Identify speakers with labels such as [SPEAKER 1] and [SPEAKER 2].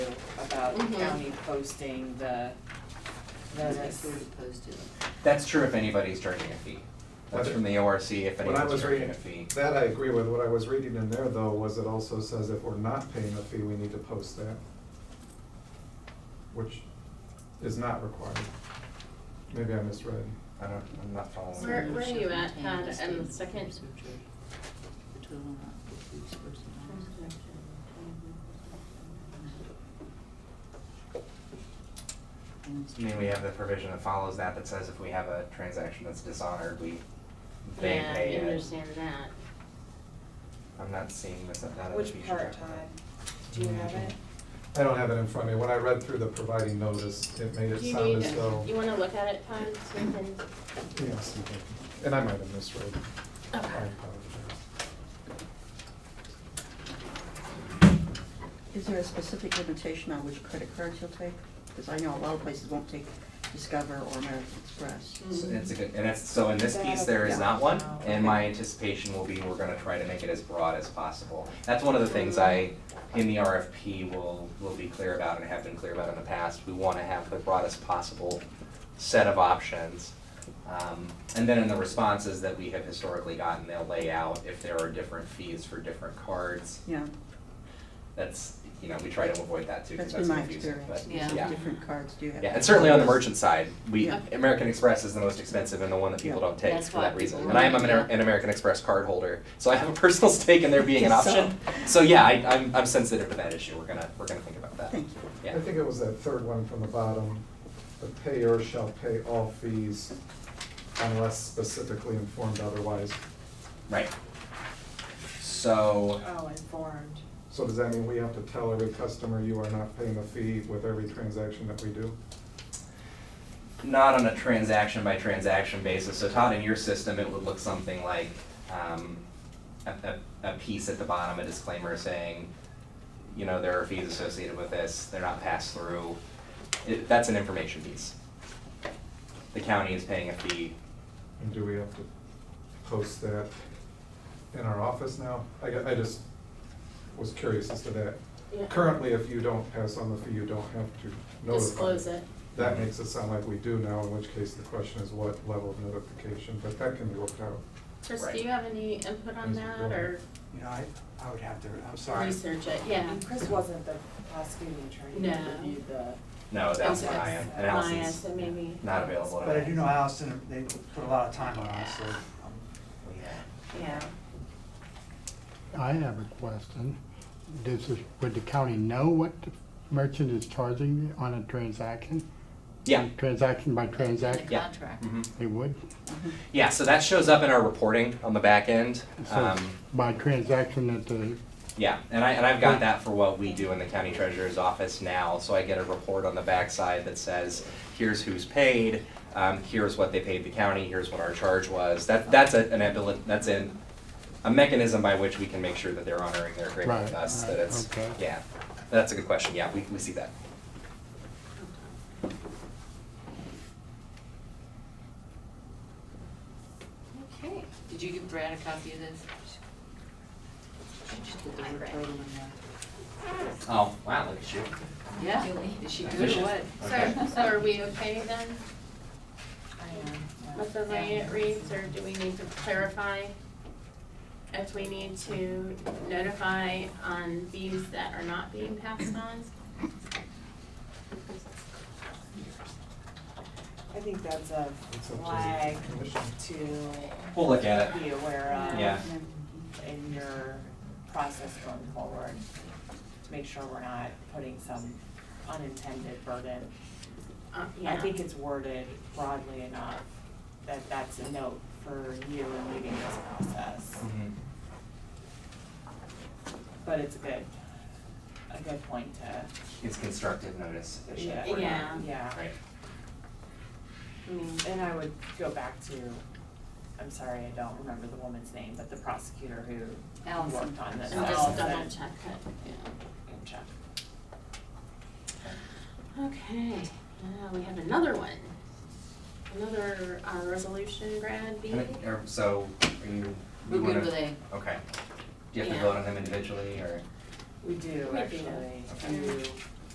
[SPEAKER 1] about the
[SPEAKER 2] Mhm.
[SPEAKER 1] county posting the notice.
[SPEAKER 2] posted.
[SPEAKER 3] That's true if anybody's charging a fee. That's
[SPEAKER 4] Okay.
[SPEAKER 3] from the ORC if
[SPEAKER 4] When I
[SPEAKER 3] anyone's
[SPEAKER 4] was
[SPEAKER 3] charging
[SPEAKER 4] reading,
[SPEAKER 3] a fee.
[SPEAKER 4] that I agree with, what I was reading in there though was it also says if we're not paying a fee, we need to post that. Which is not required. Maybe I misread.
[SPEAKER 3] I don't, I'm not following.
[SPEAKER 2] Where-
[SPEAKER 3] that.
[SPEAKER 2] where are you at, Todd, in the second?
[SPEAKER 3] I mean, we have the provision that follows that that says if we have a transaction that's dishonored, we, they
[SPEAKER 2] Yeah,
[SPEAKER 3] pay
[SPEAKER 2] I
[SPEAKER 3] it.
[SPEAKER 2] understand that.
[SPEAKER 3] I'm not seeing this, that as a
[SPEAKER 1] Which
[SPEAKER 3] fee
[SPEAKER 1] part,
[SPEAKER 3] structure.
[SPEAKER 1] Todd? Do you have it?
[SPEAKER 4] I don't have it in front of me. When I read through the providing notice, it made it
[SPEAKER 2] Do you
[SPEAKER 4] sound
[SPEAKER 2] need,
[SPEAKER 4] as though,
[SPEAKER 2] you wanna look at it, Todd, so you can,
[SPEAKER 4] yes, you did. and I might have misread. I apologize.
[SPEAKER 5] Is there a specific limitation on which credit cards you'll take? Because I know a lot of places won't take Discover or American Express.
[SPEAKER 3] So it's a good, and it's, so in this piece, there is not one,
[SPEAKER 5] Oh,
[SPEAKER 3] and my anticipation will be we're gonna try to make it as broad as possible. That's one of the things I,
[SPEAKER 5] Mm-hmm.
[SPEAKER 3] in the RFP, will, will be clear about and have been clear about in the past, we wanna have the broadest possible set of options. Um, and then in the responses that we have historically gotten, they'll lay out if there are different fees for different cards.
[SPEAKER 5] Yeah,
[SPEAKER 3] That's, you know, we try to avoid that too, because that's
[SPEAKER 5] that's been my
[SPEAKER 3] confusing,
[SPEAKER 5] experience.
[SPEAKER 3] but,
[SPEAKER 2] Yeah.
[SPEAKER 5] What Different cards do you have?
[SPEAKER 3] yeah, and certainly on the merchant side, we,
[SPEAKER 5] Yeah.
[SPEAKER 3] American Express is the most expensive and the one that people
[SPEAKER 5] Yeah.
[SPEAKER 3] don't take
[SPEAKER 2] That's
[SPEAKER 3] for
[SPEAKER 2] why
[SPEAKER 3] that
[SPEAKER 2] people
[SPEAKER 3] reason.
[SPEAKER 2] don't
[SPEAKER 3] And I am an,
[SPEAKER 2] like
[SPEAKER 3] Amer-
[SPEAKER 2] it.
[SPEAKER 3] an American Express card holder, so I have a personal stake in there being an
[SPEAKER 5] Guess so.
[SPEAKER 3] option. So yeah, I, I'm, I'm sensitive to that issue, we're gonna, we're gonna think about that.
[SPEAKER 5] Thank you.
[SPEAKER 3] Yeah.
[SPEAKER 4] I think it was that third one from the bottom, the payer shall pay all fees unless specifically informed otherwise.
[SPEAKER 3] Right. So,
[SPEAKER 1] Oh, informed.
[SPEAKER 4] So does that mean we have to tell every customer you are not paying a fee with every transaction that we do?
[SPEAKER 3] not on a transaction by transaction basis, so Todd, in your system, it would look something like, um, a, a, a piece at the bottom, a disclaimer saying, you know, there are fees associated with this, they're not passed through. It, that's an information piece. The county is paying a fee.
[SPEAKER 4] And do we have to post that in our office now? I, gu- I just was curious as to that.
[SPEAKER 2] Yeah.
[SPEAKER 4] Currently, if you don't pass on the fee, you don't have to notify.
[SPEAKER 2] disclose it.
[SPEAKER 4] That makes it sound like we do now, in which case the question is what level of notification, but that can be worked out.
[SPEAKER 2] Chris,
[SPEAKER 3] Right.
[SPEAKER 2] do you have any input on
[SPEAKER 4] Is it
[SPEAKER 2] that,
[SPEAKER 4] going-
[SPEAKER 2] or
[SPEAKER 6] You know, I, I would have to, I'm sorry.
[SPEAKER 2] research it, yeah?
[SPEAKER 1] And Chris wasn't the prosecuting attorney
[SPEAKER 2] No.
[SPEAKER 1] who reviewed the,
[SPEAKER 3] No, that's
[SPEAKER 2] Okay.
[SPEAKER 3] what I am, and
[SPEAKER 1] Maya
[SPEAKER 2] Maya,
[SPEAKER 3] Allison's
[SPEAKER 2] so maybe.
[SPEAKER 3] not available at all.
[SPEAKER 6] But I do know Allison, they put a lot of time on it, so. um,
[SPEAKER 3] Yeah.
[SPEAKER 2] Yeah.
[SPEAKER 7] I have a question. Does, this- would the county know what the merchant is charging on a transaction?
[SPEAKER 3] Yeah,
[SPEAKER 7] Transaction by transaction?
[SPEAKER 3] yeah.
[SPEAKER 2] Contract.
[SPEAKER 3] Mhm.
[SPEAKER 7] They would?
[SPEAKER 3] Yeah, so that shows up in our reporting on the back end.
[SPEAKER 7] So
[SPEAKER 3] Um,
[SPEAKER 7] it's by transaction at the,
[SPEAKER 3] Yeah, and I, and I've got that for what we do in the county treasurer's office now, so I get a report on the backside that says, here's who's paid, um, here's what they paid the county, here's what our charge was, that, that's a, an ability, that's in, a mechanism by which we can make sure that they're honoring their agreement with
[SPEAKER 7] Right,
[SPEAKER 3] us,
[SPEAKER 7] right,
[SPEAKER 3] that it's,
[SPEAKER 7] okay.
[SPEAKER 3] yeah, that's a good question, yeah, we, we see that.
[SPEAKER 2] Okay.
[SPEAKER 8] Did you give Brad a copy of this?
[SPEAKER 3] Oh, wow, look at you.
[SPEAKER 8] Yeah, is she good or
[SPEAKER 3] Efficient.
[SPEAKER 8] what?
[SPEAKER 2] So, so are we okay then
[SPEAKER 1] I am.
[SPEAKER 2] with the way it reads, or do we need to clarify? If we need to notify on fees that are not being passed on?
[SPEAKER 1] I think that's a
[SPEAKER 4] It's up to the
[SPEAKER 1] flag
[SPEAKER 4] commission.
[SPEAKER 1] to
[SPEAKER 3] We'll look at it,
[SPEAKER 1] be aware of.
[SPEAKER 3] yeah.
[SPEAKER 1] in your process going forward, to make sure we're not putting some unintended burden.
[SPEAKER 2] Uh,
[SPEAKER 1] I
[SPEAKER 2] yeah.
[SPEAKER 1] think it's worded broadly enough that that's a note for you in leading this process,
[SPEAKER 7] Mm-hmm.
[SPEAKER 3] Mhm.
[SPEAKER 1] but it's a good, a good point to,
[SPEAKER 3] It's constructive notice,
[SPEAKER 1] yeah,
[SPEAKER 3] efficient, we're not-
[SPEAKER 2] Yeah.
[SPEAKER 1] yeah.
[SPEAKER 3] Right,
[SPEAKER 2] I mean,
[SPEAKER 1] And I would go back to, I'm sorry, I don't remember the woman's name, but the prosecutor who
[SPEAKER 8] Allison.
[SPEAKER 1] worked on this.
[SPEAKER 2] and
[SPEAKER 1] Allison.
[SPEAKER 2] just double check it, yeah.
[SPEAKER 1] And check.
[SPEAKER 2] Okay, now we have another one. Another uh, resolution grad B.
[SPEAKER 3] And it- or- er, so, are you,
[SPEAKER 8] We're
[SPEAKER 3] you wanna?
[SPEAKER 8] good with A.
[SPEAKER 3] Okay. Do you
[SPEAKER 2] Yeah.
[SPEAKER 3] have to vote on them individually, or?
[SPEAKER 1] We do,
[SPEAKER 2] We do.
[SPEAKER 1] actually,
[SPEAKER 3] Okay.
[SPEAKER 1] you